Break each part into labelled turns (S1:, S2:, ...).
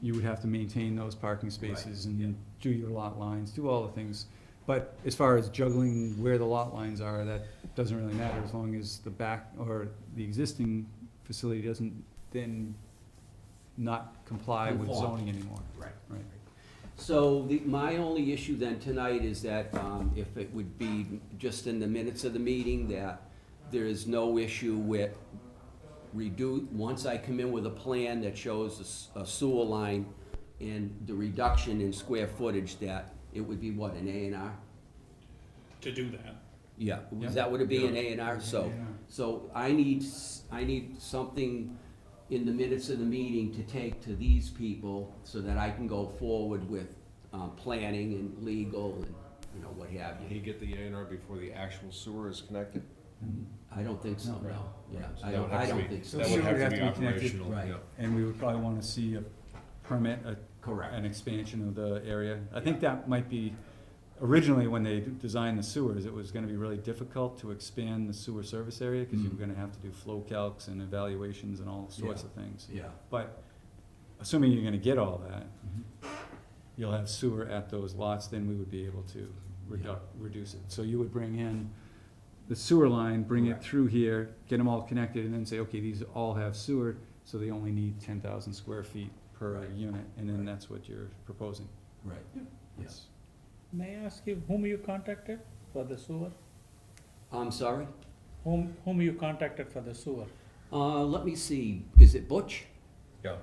S1: you would have to maintain those parking spaces and do your lot lines, do all the things. But as far as juggling where the lot lines are, that doesn't really matter, as long as the back, or the existing facility doesn't then not comply with
S2: Conform.
S1: zoning anymore.
S2: Right.
S1: Right.
S2: So the, my only issue then tonight is that, um, if it would be just in the minutes of the meeting, that there is no issue with redo, once I come in with a plan that shows a s- a sewer line and the reduction in square footage, that it would be what, an A and R?
S3: to do that.
S2: Yeah,
S1: Yeah.
S2: is that would it be an A and
S1: Yeah.
S2: R? So,
S1: Yeah.
S2: so I need, s- I need something in the minutes of the meeting to take to these people so that I can go forward with, uh, planning and legal and, you know, what have
S4: Did
S2: you.
S4: he get the A and R before the actual sewer is connected?
S2: I don't think so,
S1: No.
S2: no, yeah,
S4: So
S2: I
S4: that would
S2: don't,
S4: have
S2: I
S4: to
S2: don't
S4: be-
S2: think so.
S4: That
S1: Sewer
S4: would
S1: would
S4: have to be
S1: have to be connected.
S4: operational,
S2: Right.
S4: yeah.
S1: And we would probably wanna see a permit, a
S2: Correct,
S1: an expansion of the area. I think that might be, originally, when they d- designed the sewers, it was gonna be really difficult to expand the sewer service area, cause you were
S2: Mm.
S1: gonna have to do flow calcs and evaluations and all sorts of things.
S2: yeah,
S1: But assuming you're gonna get all that, you'll have sewer at those lots, then we would be able to reduc reduce it. So you would bring in the sewer line, bring it
S2: Correct.
S1: through here, get them all connected, and then say, okay, these all have sewer, so they only need ten thousand square feet per
S2: Right.
S1: unit, and then
S2: Right.
S1: that's what you're proposing.
S2: right, yes.
S1: Yes.
S5: May I ask you whom you contacted for the sewer?
S2: I'm Um, sorry,
S5: Whom, whom you contacted for the sewer?
S2: uh, let me see, is it Butch?
S4: Yeah,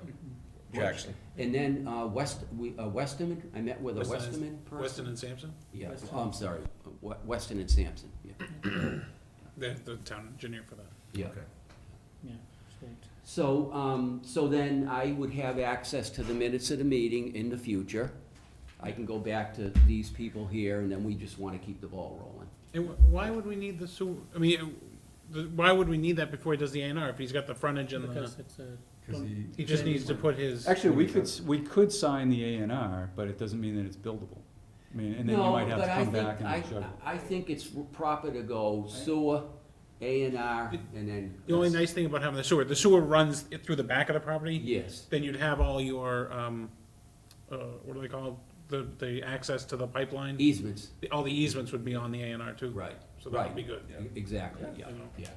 S4: Jackson.
S2: And then, uh, West, we, uh, Westerman, I met with a
S3: Weston is-
S2: Westerman person?
S3: Weston and Sampson,
S2: Yeah,
S5: Weston.
S2: oh, I'm sorry, uh, We- Weston and Sampson, yeah.
S3: they're the town engineer for that.
S2: Yeah.
S5: Yeah, sweet.
S2: So, um, so then I would have access to the minutes of the meeting in the future. I can go back to these people here, and then we just wanna keep the ball rolling.
S3: And wh- why would we need the sewer, I mean, uh, the- why would we need that before he does the A and R, if he's got the frontage and the,
S5: Because it's a.
S1: Cause he,
S3: he just needs to put his.
S1: actually, we could, s- we could sign the A and R, but it doesn't mean that it's buildable. I mean, and then you
S2: No,
S1: might have to
S2: but I
S1: come back
S2: think-
S1: and
S2: I-
S1: juggle.
S2: I think it's proper to go sewer, A and R, and then.
S3: The only nice thing about having the sewer, the sewer runs it through the back of the property,
S2: Yes,
S3: then you'd have all your, um, uh, what do they call, the, the access to the pipeline,
S1: E-
S2: easements,
S3: all the easements would be on the A and R too.
S2: right,
S3: So that would be
S2: right,
S3: good.
S2: exactly,
S3: You
S2: yeah,
S3: know,
S2: yeah,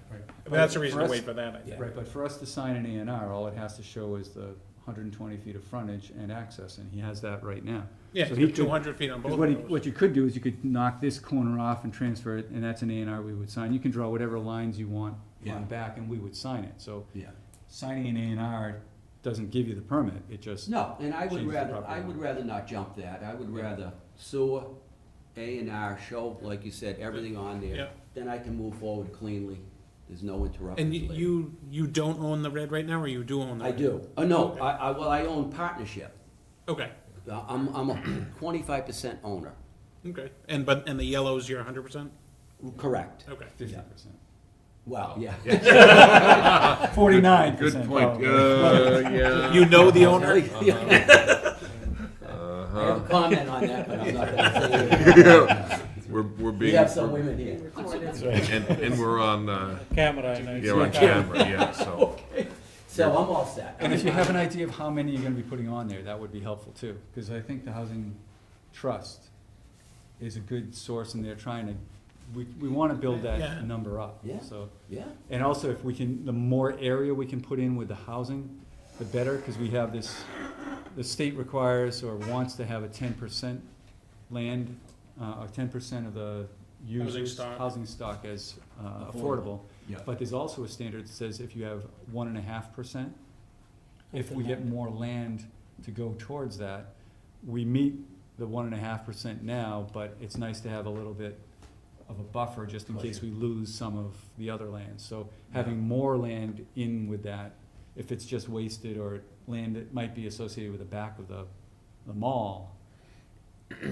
S3: But that's the
S1: But
S3: reason
S1: for
S3: to
S1: us-
S3: wait for that, I think.
S2: yeah,
S1: Right, but for us to sign an A and R, all it has to show is the hundred and twenty feet of frontage and access, and he has that right now.
S3: Yeah,
S1: So he could-
S3: two hundred feet on both
S1: Because
S3: of
S1: what, he-
S3: those.
S1: what you could do is you could knock this corner off and transfer it, and that's an A and R we would sign. You can draw whatever lines you want
S2: Yeah.
S1: on the back, and we would sign it. So
S2: yeah.
S1: signing an A and R doesn't give you the permit, it just.
S2: No, and I would
S1: Change the
S2: rather,
S1: property
S2: I would
S1: line.
S2: rather not jump that, I would rather sewer, A and R, show, like you said, everything on
S3: Yeah.
S2: there. Then I can move forward cleanly, there's no
S3: And
S2: interruptions
S3: y-
S2: later.
S3: you, you don't own the red right now, or you do own the
S2: I
S3: red?
S2: do, oh, no, I, I, well, I own partnership,
S3: Okay,
S2: Uh, I'm, I'm a twenty-five percent owner,
S3: okay. And, but, and the yellow's your hundred percent?
S2: correct,
S3: Okay.
S1: Fifty percent.
S2: well, yeah.
S1: Forty-nine
S4: Good
S1: percent.
S4: point, uh, yeah.
S3: You know the owner?
S2: I have a
S4: Uh-huh.
S2: comment on that, but I'm not gonna say it.
S4: We're, we're
S2: We
S4: being,
S2: have some
S4: and,
S2: women here,
S4: and we're on, uh,
S5: Camera, I know.
S4: yeah, we're on camera, yeah, so.
S2: so I'm all set.
S1: And if you have an idea of how many you're gonna be putting on there, that would be helpful too, because I think the housing trust is a good source and they're trying to, we, we wanna build
S3: Yeah.
S1: that number up,
S2: Yeah.
S1: so.
S2: Yeah,
S1: And also if we can, the more area we can put in with the housing, the better, cause we have this, the state requires or wants to have a ten percent land, uh, or ten percent of the users.
S3: stock.
S1: housing stock as, uh,
S2: Affordable.
S1: affordable.
S2: yeah,
S1: But there's also a standard that says if you have one and a half percent, if we get more land to go towards that, we meet the one and a half percent now, but it's nice to have a little bit of a buffer just in case we lose some of the other land. So having more land in with that, if it's just wasted or land that might be associated with the back of the, the mall,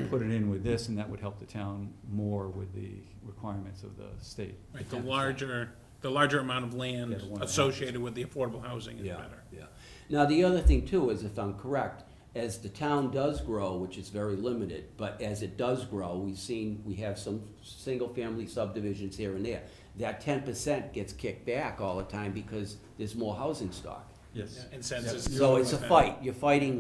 S1: put it in with this and that would help the town more with the requirements of the state.
S3: Right, the larger, the larger amount of land
S1: Yeah, the one-
S3: associated with the affordable housing is
S2: Yeah,
S3: better.
S2: yeah. Now, the other thing too is, if I'm correct, as the town does grow, which is very limited, but as it does grow, we've seen, we have some single-family subdivisions here and there. That ten percent gets kicked back all the time because there's more housing stock.
S1: Yes.
S3: And since it's.
S2: So it's a fight, you're fighting